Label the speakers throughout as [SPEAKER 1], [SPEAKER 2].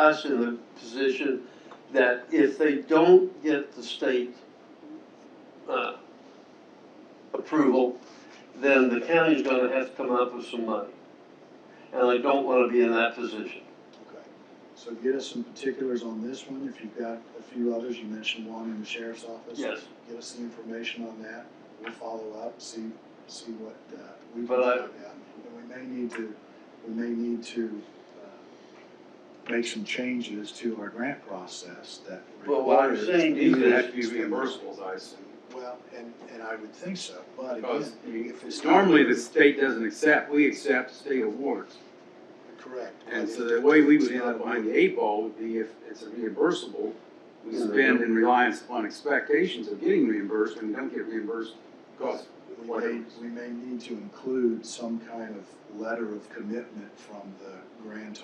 [SPEAKER 1] us in a position that if they don't get the state uh, approval, then the county's gonna have to come up with some money. And I don't wanna be in that position.
[SPEAKER 2] Okay, so get us some particulars on this one, if you've got a few others, you mentioned one in the sheriff's office.
[SPEAKER 1] Yes.
[SPEAKER 2] Get us the information on that, we'll follow up, see, see what, uh, we can
[SPEAKER 1] But
[SPEAKER 2] find
[SPEAKER 1] I-
[SPEAKER 2] out. And we may need to, we may need to, uh, make some changes to our grant process that
[SPEAKER 1] Well, what I'm
[SPEAKER 2] requires.
[SPEAKER 1] saying to
[SPEAKER 3] These
[SPEAKER 1] you
[SPEAKER 3] would
[SPEAKER 1] is,
[SPEAKER 3] have to be reimbursables, I assume.
[SPEAKER 2] Well, and, and I would think so, but
[SPEAKER 3] Because,
[SPEAKER 2] again,
[SPEAKER 3] I mean,
[SPEAKER 2] if it's. not-
[SPEAKER 3] normally the state doesn't accept, we accept state awards.
[SPEAKER 2] Correct.
[SPEAKER 3] And
[SPEAKER 2] but
[SPEAKER 3] so
[SPEAKER 2] if
[SPEAKER 3] the way we would
[SPEAKER 2] it's
[SPEAKER 3] end
[SPEAKER 2] not
[SPEAKER 3] up behind the eight ball would be if it's a reimbursable, we spend in reliance upon expectations of getting reimbursed, and we don't get reimbursed because
[SPEAKER 2] We
[SPEAKER 3] whatever.
[SPEAKER 2] may, we may need to include some kind of letter of commitment from the grantor,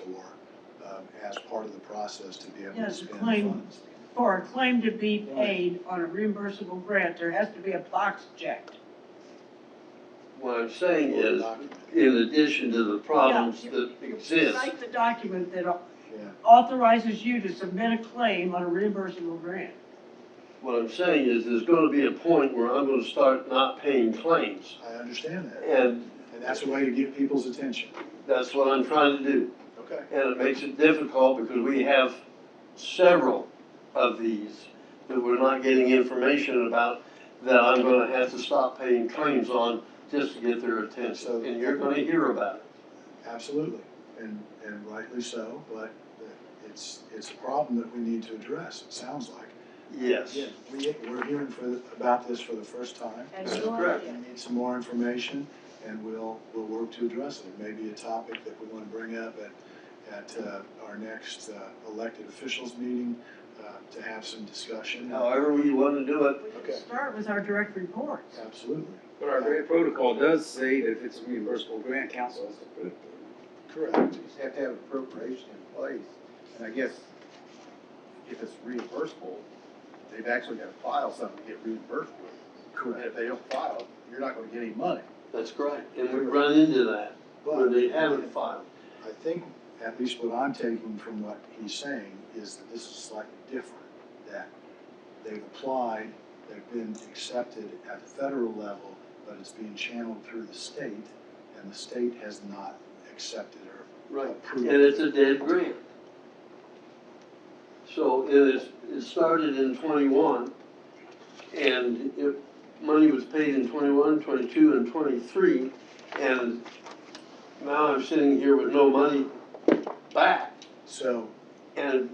[SPEAKER 2] um, as part of the process to be able
[SPEAKER 4] Yeah,
[SPEAKER 2] to
[SPEAKER 4] to
[SPEAKER 2] spend
[SPEAKER 4] claim.
[SPEAKER 2] funds.
[SPEAKER 4] For a claim to be paid on a reimbursable grant, there has to be a box checked.
[SPEAKER 1] what I'm saying
[SPEAKER 2] Or
[SPEAKER 1] is,
[SPEAKER 2] document.
[SPEAKER 1] in addition to the problems
[SPEAKER 4] Yeah,
[SPEAKER 1] that
[SPEAKER 4] you- you
[SPEAKER 1] exist,
[SPEAKER 4] Cite the document that
[SPEAKER 2] Yeah,
[SPEAKER 4] authorizes you to submit a claim on a reimbursable grant.
[SPEAKER 1] what I'm saying is, there's gonna be a point where I'm gonna start not paying claims.
[SPEAKER 2] I understand that,
[SPEAKER 1] And
[SPEAKER 2] and that's a way to get people's attention.
[SPEAKER 1] that's what I'm trying to do.
[SPEAKER 2] Okay.
[SPEAKER 1] And it makes it difficult because we have several of these that we're not getting information about that I'm gonna have to stop paying claims on just to get their attention. And you're gonna hear about it.
[SPEAKER 2] Absolutely, and, and rightly so, but it's, it's a problem that we need to address, it sounds like.
[SPEAKER 1] Yes.
[SPEAKER 2] We, we're hearing for, the- about this for the first time.
[SPEAKER 5] And
[SPEAKER 3] That's
[SPEAKER 5] we want
[SPEAKER 1] correct.
[SPEAKER 5] it.
[SPEAKER 2] We need some more information and we'll, we'll work to address it. It may be a topic that we want to bring up at, at uh, our next uh, elected officials meeting uh, to have some discussion.
[SPEAKER 1] However we wanna do it,
[SPEAKER 4] We
[SPEAKER 2] Okay.
[SPEAKER 4] can start with our direct reports.
[SPEAKER 2] Absolutely,
[SPEAKER 3] But our grant protocol does say that if it's a reimbursable grant, council has to put it.
[SPEAKER 2] correct.
[SPEAKER 6] You just have to have appropriation in place, and I guess if it's reimbursable, they've actually got to file something to get reimbursed with. And
[SPEAKER 2] Correct.
[SPEAKER 6] if they don't file, you're not gonna get any money.
[SPEAKER 1] that's great. And we run into that when
[SPEAKER 2] But
[SPEAKER 1] they haven't filed.
[SPEAKER 2] I think, at least what I'm taking from what he's saying, is that this is slightly different. That they've applied, they've been accepted at the federal level, but it's being channeled through the state, and the state has not accepted or
[SPEAKER 1] Right.
[SPEAKER 2] approved.
[SPEAKER 1] And it's a dead grant. So it is, it started in twenty-one, and it, money was paid in 21, 22, and twenty-three, and now I'm sitting here with no money back,
[SPEAKER 2] So
[SPEAKER 1] and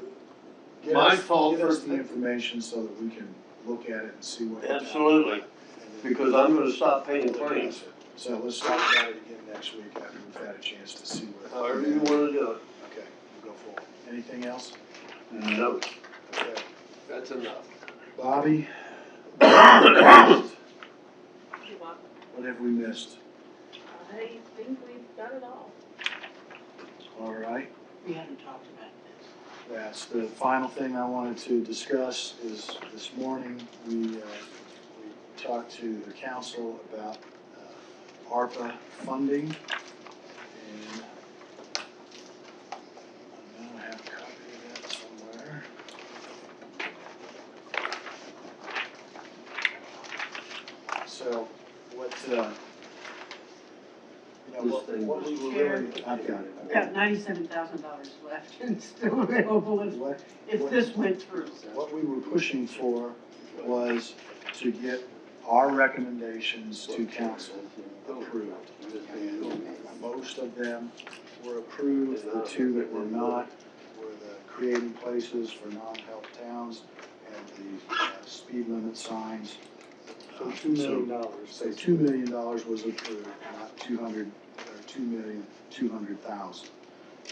[SPEAKER 2] get
[SPEAKER 1] My
[SPEAKER 2] us,
[SPEAKER 1] fault
[SPEAKER 2] get us
[SPEAKER 1] for-
[SPEAKER 2] the information so that we can look at it and see what.
[SPEAKER 1] absolutely, because I'm gonna stop paying claims,
[SPEAKER 2] So let's talk about it again next week after we've had a chance to see what.
[SPEAKER 1] however you wanna do
[SPEAKER 2] Okay, we'll go forward. Anything else?
[SPEAKER 1] it. No,
[SPEAKER 2] Okay.
[SPEAKER 1] that's enough.
[SPEAKER 2] Bobby? What
[SPEAKER 5] You want-
[SPEAKER 2] have we missed?
[SPEAKER 5] I think we've got it all.
[SPEAKER 2] All right,
[SPEAKER 4] We haven't talked about this.
[SPEAKER 2] that's the final thing I wanted to discuss is this morning, we, uh, we talked to the council about uh, ARPA funding. And I know I have a copy of that somewhere. So what, uh, you know, what- what we were really, I've got it.
[SPEAKER 4] We've got ninety-seven thousand dollars left and still available if,
[SPEAKER 2] What,
[SPEAKER 4] if this went through.
[SPEAKER 2] what we were pushing for was to get our recommendations to council approved. And Most of them were approved, the two that were not were the creating places for non-help towns and the uh, speed limit signs. Uh,
[SPEAKER 1] So two million dollars.
[SPEAKER 2] So two million dollars was approved, not two hundred, or two million, two hundred thousand.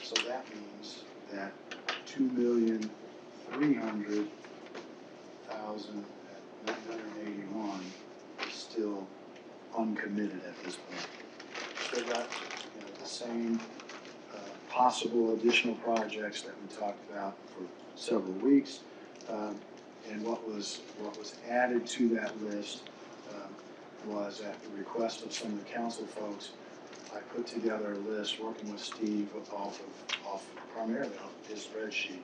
[SPEAKER 2] So that means that two million, three hundred thousand, nine hundred and eighty-one is still uncommitted at this point. Still got, you know, the same, uh, possible additional projects that we talked about for several weeks. Um, and what was, what was added to that list, um, was at the request of some of the council folks, I put together a list, working with Steve off of, off primarily off his spreadsheet.